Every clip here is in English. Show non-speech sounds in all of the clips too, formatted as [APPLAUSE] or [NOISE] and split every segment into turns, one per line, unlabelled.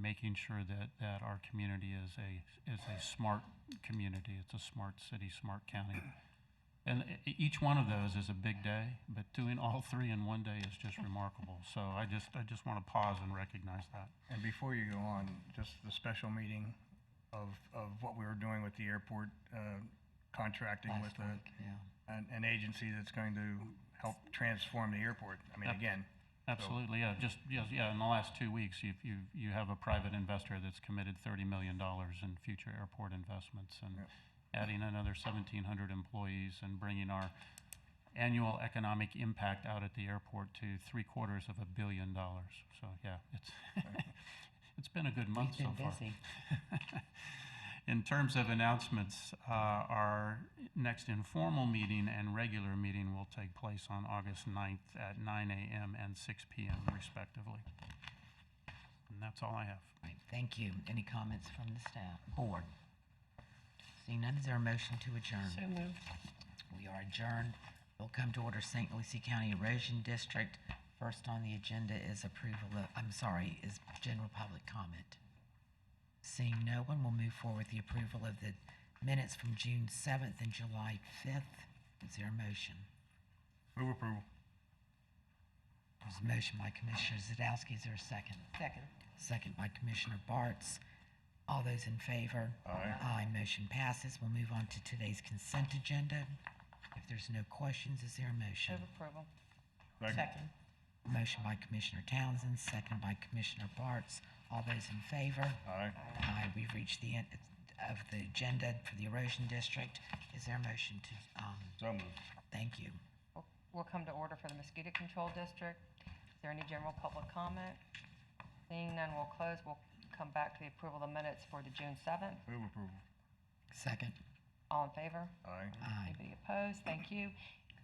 making sure that, that our community is a, is a smart community. It's a smart city, smart county. [CLEARS THROAT] And e- e- each one of those is a big day, but doing all three in one day is just remarkable. So I just, I just want to pause and recognize that.
And before you go on, just the special meeting of, of what we were doing with the airport, uh, contracting with
Last
a,
week, yeah.
an, an agency that's going to help transform the airport. I mean,
Yep.
again,
Absolutely, yeah, just, yes, yeah, in the last two weeks, you, you, you have a private investor that's committed thirty million dollars in future airport investments and
Yep.
adding another seventeen hundred employees and bringing our annual economic impact out at the airport to three quarters of a billion dollars. So, yeah, it's, [LAUGHS] it's been a good month so
We've been
far.
busy.
[LAUGHS] In terms of announcements, uh, our next informal meeting and regular meeting will take place on August 9th at 9 a.m. and 6 p.m. respectively. And that's all I have.
Right, thank you. Any comments from the staff, board? Seeing none, is there a motion to adjourn?
So moved.
We are adjourned. We'll come to order St. Lucie County Erosion District. First on the agenda is approval of, I'm sorry, is general public comment. Seeing no one, we'll move forward with the approval of the minutes from June 7th and July 5th. Is there a motion?
move approval.
There's a motion by Commissioner Zadowski. Is there a second?
Second.
Second by Commissioner Bartz. All those in favor?
Aye.
Aye, motion passes. We'll move on to today's consent agenda. If there's no questions, is there a motion?
Move approval.
Second.
Second.
Motion by Commissioner Townsend, second by Commissioner Bartz. All those in favor?
Aye.
Aye, we've reached the end of the agenda for the erosion district. Is there a motion to, um,
So moved.
thank you.
We'll- We'll come to order for the mosquito control district. Is there any general public comment? Seeing none, we'll close. We'll come back to the approval of the minutes for the June 7th.
Move approval.
Second.
All in favor?
Aye.
Aye.
Anybody opposed? Thank you.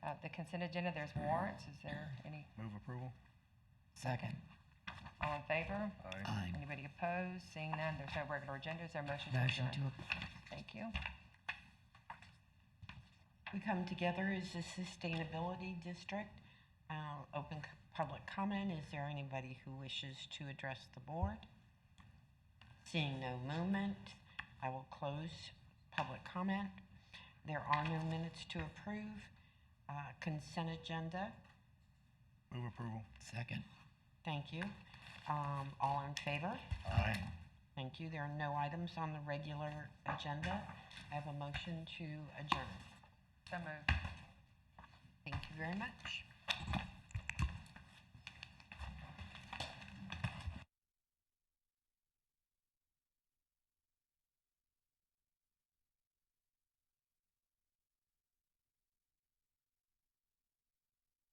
Uh, The consent agenda, there's warrants. Is there any,
Move approval.
Second.
all in favor?
Aye.
Aye.
Anybody opposed? Seeing none, there's no regular agenda. Is there a motion to
Motion to,
adjourn? Thank you.
We come together as a sustainability district. Uh, Open c- public comment. Is there anybody who wishes to address the board? Seeing no movement, I will close public comment. There are no minutes to approve. Uh, Consent agenda,
Move approval.
second.
thank you. Um, All in favor?
Aye.
Thank you. There are no items on the regular agenda. I have a motion to adjourn.
So moved.
Thank you very much.